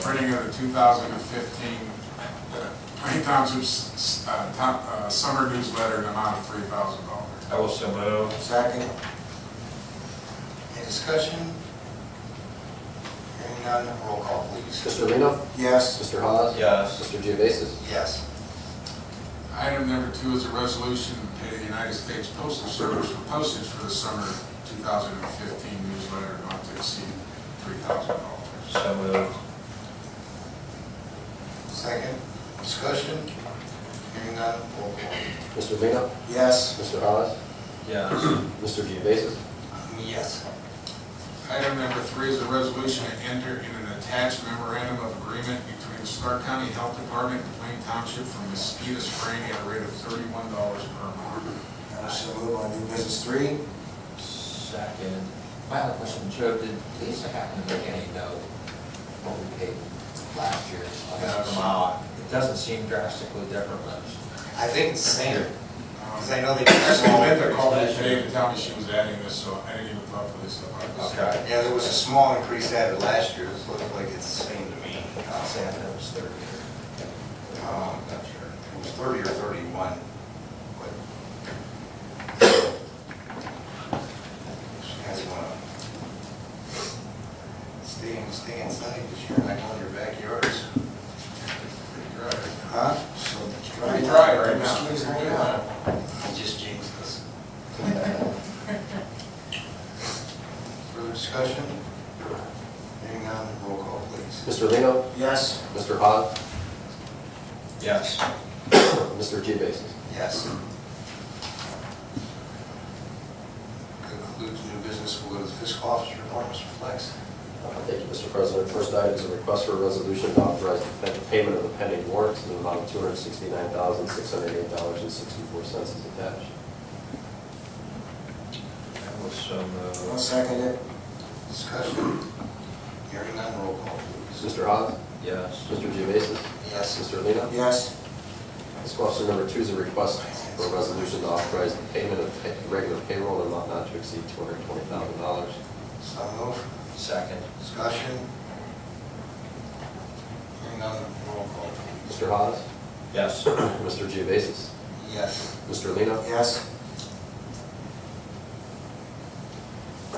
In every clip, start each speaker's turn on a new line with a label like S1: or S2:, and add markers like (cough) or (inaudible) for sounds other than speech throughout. S1: printing of the 2015 uh, Plain Township's uh, top- uh, summer newsletter in the amount of $3,000.
S2: I will so move.
S3: Second. Any discussion? Hearing none, roll call please.
S4: Mr. Lino?
S3: Yes.
S4: Mr. Hawes?
S2: Yes.
S4: Mr. Geovasis?
S3: Yes.
S1: Item number two is a resolution to pay the United States Postal Service for postage for the summer 2015 newsletter not to exceed $3,000.
S2: So move.
S3: Second. Discussion? Hearing none, roll call.
S4: Mr. Lino?
S3: Yes.
S4: Mr. Hawes?
S2: Yes.
S4: Mr. Geovasis?
S3: Yes.
S1: Item number three is a resolution to enter in an attached memorandum of agreement between Stark County Health Department and Plain Township for mosquito spraying at a rate of thirty-one dollars per month.
S3: I shall move on new business three.
S5: Second. My other question, Joe, did Lisa happen to make any note what we paid last year? on this
S1: No, she-
S5: amount? It doesn't seem drastically different, but
S3: I think it's the same, because I know they. (laughs)
S1: Actually, Linda called me today to tell me she was adding this, so I didn't even talk to Lisa about this.
S5: Okay.
S3: Yeah, there was a small increase added last year, it looks like it's the same to me. Uh,
S5: I'll say I know it's thirty or.
S3: Um,
S5: I'm not sure.
S3: It was thirty or thirty-one, but. She has one. Stay, in- stay inside, because you're not in your backyards.
S1: You're right.
S3: Huh? So it's
S1: dry. Pretty dry right now.
S3: Mosquitoes hanging out. You just jinxed us. (laughs) Further discussion? Hearing none, roll call please.
S4: Mr. Lino?
S3: Yes.
S4: Mr. Hawes? (coughs)
S2: Yes.
S4: Mr. Geovasis?
S3: Yes. Concludes new business, we'll go to the fiscal officer report, Mr. Flex.
S4: Uh, Thank you, Mr. President. First item is a request for a resolution to authorize the pen- payment of the pending warrants in the amount of $269,608.64 is attached.
S2: I will so move.
S3: second it. Discussion. Hearing none, roll call please.
S4: Mr. Hawes?
S2: Yes.
S4: Mr. Geovasis?
S3: Yes.
S4: Mr. Lino?
S3: Yes.
S4: Fiscal officer number two is a request for a resolution to authorize the payment of pay- regular payroll in amount not to exceed $220,000.
S3: So move.
S2: Second.
S3: Discussion. Hearing none, roll call please.
S4: Mr. (clears throat) Hawes?
S2: Yes.
S4: Mr. Geovasis?
S3: Yes.
S4: Mr. Lino?
S3: Yes.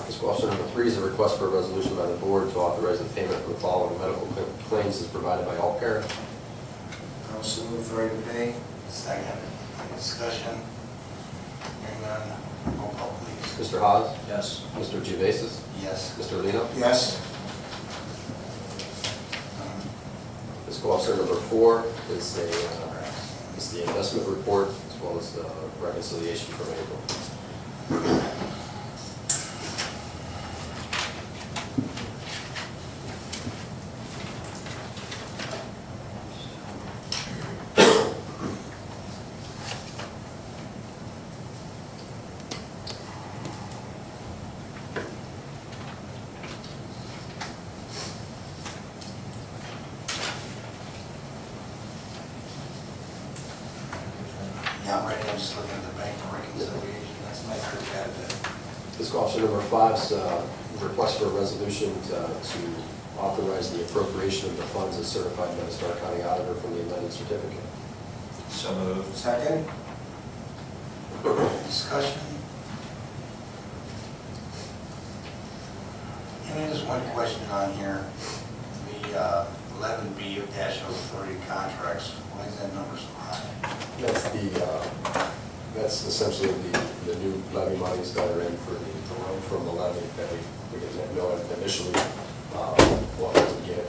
S4: Fiscal officer number three is a request for a resolution by the board to authorize the payment for the following medical cl- claims as provided by all parent.
S3: I also move for item A. Second. Discussion. Hearing none, roll call please.
S4: Mr. Hawes?
S2: Yes.
S4: Mr. Geovasis?
S3: Yes.
S4: Mr. Lino?
S3: Yes. Um,
S4: Fiscal officer number four is a, uh, is the investment report as well as the reconciliation from April.
S3: Yeah, I'm ready, I'm just looking at the bank reconciliation, that's my first bad
S4: Fiscal officer number five is uh, a request for a resolution to uh, to authorize the appropriation of the funds as certified by the Stark County Auditor from the amended certificate.
S2: So move.
S3: Second. Discussion. And there's one question on here, the uh, eleven B of dash oh three contracts, why is that number so high?
S4: That's the, uh, that's essentially the, the new levy monies that are in for the, the loan from the levy that we, we didn't know initially um, what we would get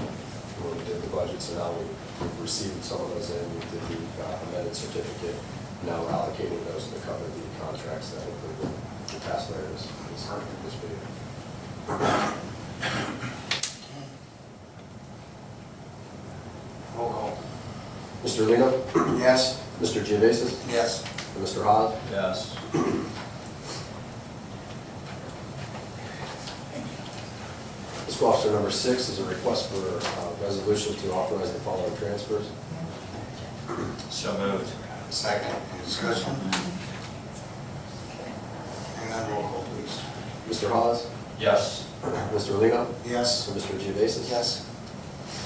S4: when we did the budget, so now we- we've received some of those in, we did the uh, amended certificate, now we're allocating those to cover the contracts that include the task layer this, this this video.
S3: Roll call.
S4: Mr. Lino?
S3: Yes.
S4: Mr. Geovasis?
S3: Yes.
S4: And Mr. Hawes?
S2: Yes.
S4: Fiscal officer number six is a request for a resolution to authorize the following transfers.
S2: So moved.
S3: Second, any discussion? And then roll call, please.
S4: Mr. Hawes?
S2: Yes.
S4: (clears throat) Mr. Lino?
S3: Yes.
S4: Mr. Geovasis?
S3: Yes.